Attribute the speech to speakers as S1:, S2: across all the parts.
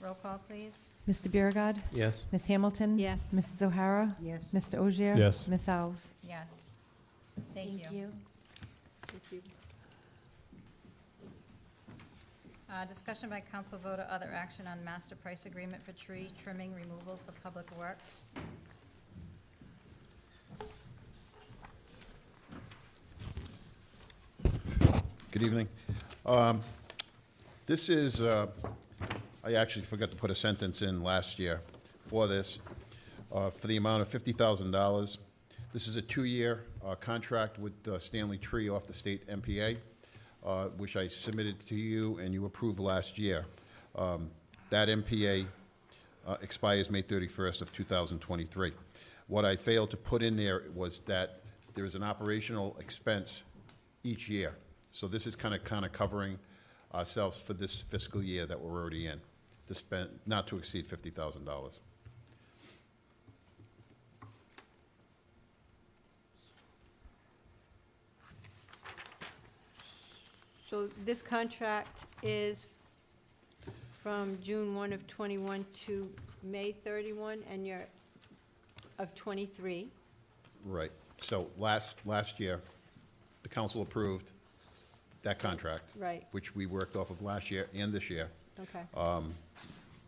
S1: Roll call, please.
S2: Mr. Biragad.
S3: Yes.
S2: Ms. Hamilton.
S1: Yes.
S2: Mrs. O'Hara.
S4: Yes.
S2: Mr. Ogier.
S3: Yes.
S2: Ms. Alves.
S1: Yes. Thank you. Uh, Discussion by council vote or other action on master price agreement for tree trimming removal for public works.
S5: Good evening. Um, This is, uh, I actually forgot to put a sentence in last year for this, uh, for the amount of $50,000. This is a two-year uh, contract with uh, Stanley Tree off the state MPA, uh, which I submitted to you and you approved last year. Um, That MPA uh, expires May 31st of 2023. What I failed to put in there was that there is an operational expense each year. So this is kind of, kind of covering ourselves for this fiscal year that we're already in, to spend, not to exceed $50,000.
S4: So this contract is from June 1 of '21 to May 31, and you're, of '23.
S5: Right. So last, last year, the council approved that contract.
S4: Right.
S5: Which we worked off of last year and this year.
S4: Okay.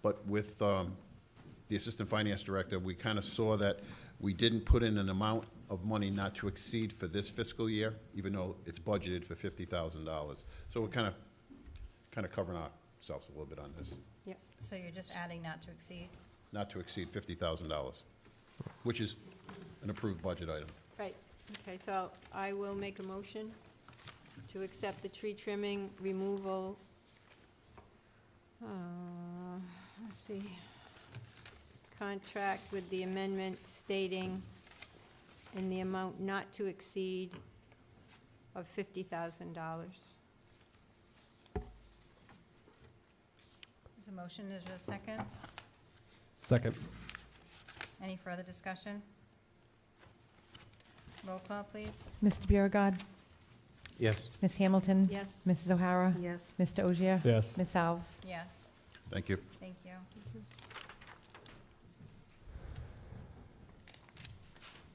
S5: But with um, the Assistant Finance Director, we kind of saw that we didn't put in an amount of money not to exceed for this fiscal year, even though it's budgeted for $50,000. So we're kind of, kind of covering ourselves a little bit on this.
S4: Yep.
S1: So you're just adding not to exceed?
S5: not to exceed $50,000, which is an approved budget item.
S4: Right, okay, so I will make a motion to accept the tree trimming removal. uh, Let's see, contract with the amendment stating in the amount not to exceed of fifty thousand dollars.
S1: Is a motion, is there a second?
S3: Second.
S1: Any further discussion? Roll call, please.
S2: Mr. Biragad.
S3: Yes.
S2: Ms. Hamilton.
S4: Yes?
S2: Mrs. O'Hara.
S4: Yes.
S2: Mr. Ogier.
S3: Yes.
S2: Ms. Alves.
S1: Yes,
S5: Thank you.
S1: thank you.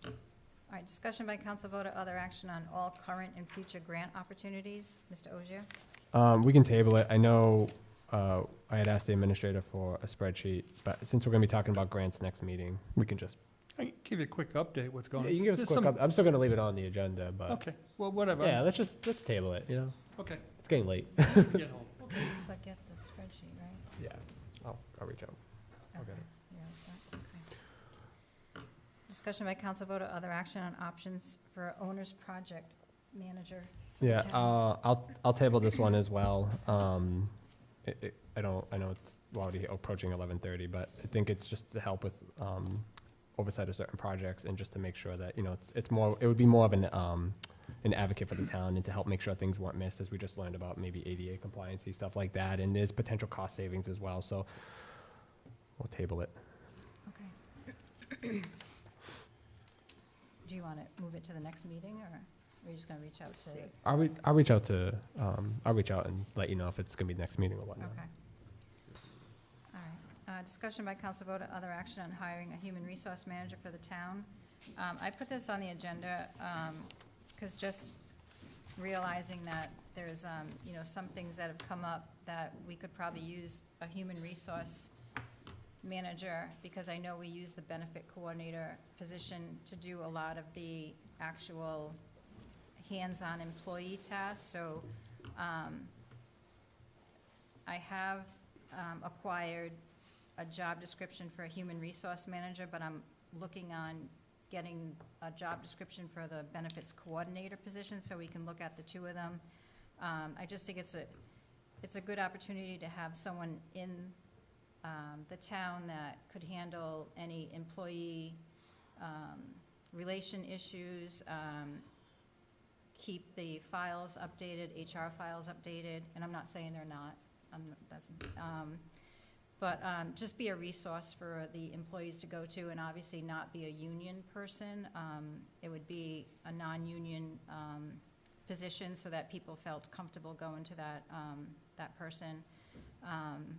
S1: All right, discussion by council vote or other action on all current and future grant opportunities. Mr. Ogier?
S3: Um, we can table it. I know, uh, I had asked the administrator for a spreadsheet, but since we're gonna be talking about grants next meeting, we can just,
S6: I can give you a quick update, what's
S3: you
S6: going on.
S3: can give us a
S6: There's
S3: quick,
S6: some-
S3: up- I'm still gonna leave it on the agenda, but,
S6: Okay, well, whatever.
S3: yeah, let's just, let's table it, you know?
S6: Okay.
S3: It's getting late.
S6: Get home.
S1: Click at the spreadsheet, right?
S3: Yeah, I'll, I'll reach out. I'll get
S1: Okay.
S3: it.
S1: You're all set? Okay. Discussion by council vote or other action on options for owner's project manager.
S3: Yeah,
S1: Jen?
S3: uh, I'll, I'll table this one as well. Um, it, it, I don't, I know it's already approaching eleven thirty, but I think it's just to help with, um, oversight of certain projects and just to make sure that, you know, it's, it's more, it would be more of an, um, an advocate for the town and to help make sure things weren't missed, as we just learned about maybe ADA compliancy, stuff like that, and there's potential cost savings as well, so we'll table it.
S1: Okay. Do you want to move it to the next meeting, or are you just going to reach out to? Okay.
S3: I'll re- I'll reach out to, um, I'll reach out and let you know if it's gonna be next meeting or
S1: All
S3: whatnot.
S1: right. Uh, Discussion by council vote or other action on hiring a human resource manager for the town. Um, I put this on the agenda because just realizing that there's, um, you know, some things that have come up that we could probably use a human resource manager, because I know we use the benefit coordinator position to do a lot of the actual hands-on employee tasks, so, um, I have, um, acquired a job description for a human resource manager, but I'm looking on getting a job description for the benefits coordinator position, so we can look at the two of them. Um, I just think it's a, it's a good opportunity to have someone in, um, the town that could handle any employee, um, relation issues, um, keep the files updated, HR files updated, and I'm not saying they're not, I'm, that's, um, but, um, just be a resource for the employees to go to, and obviously not be a union person. Um, it would be a non-union, um, position, so that people felt comfortable going to that, um, that person. Um,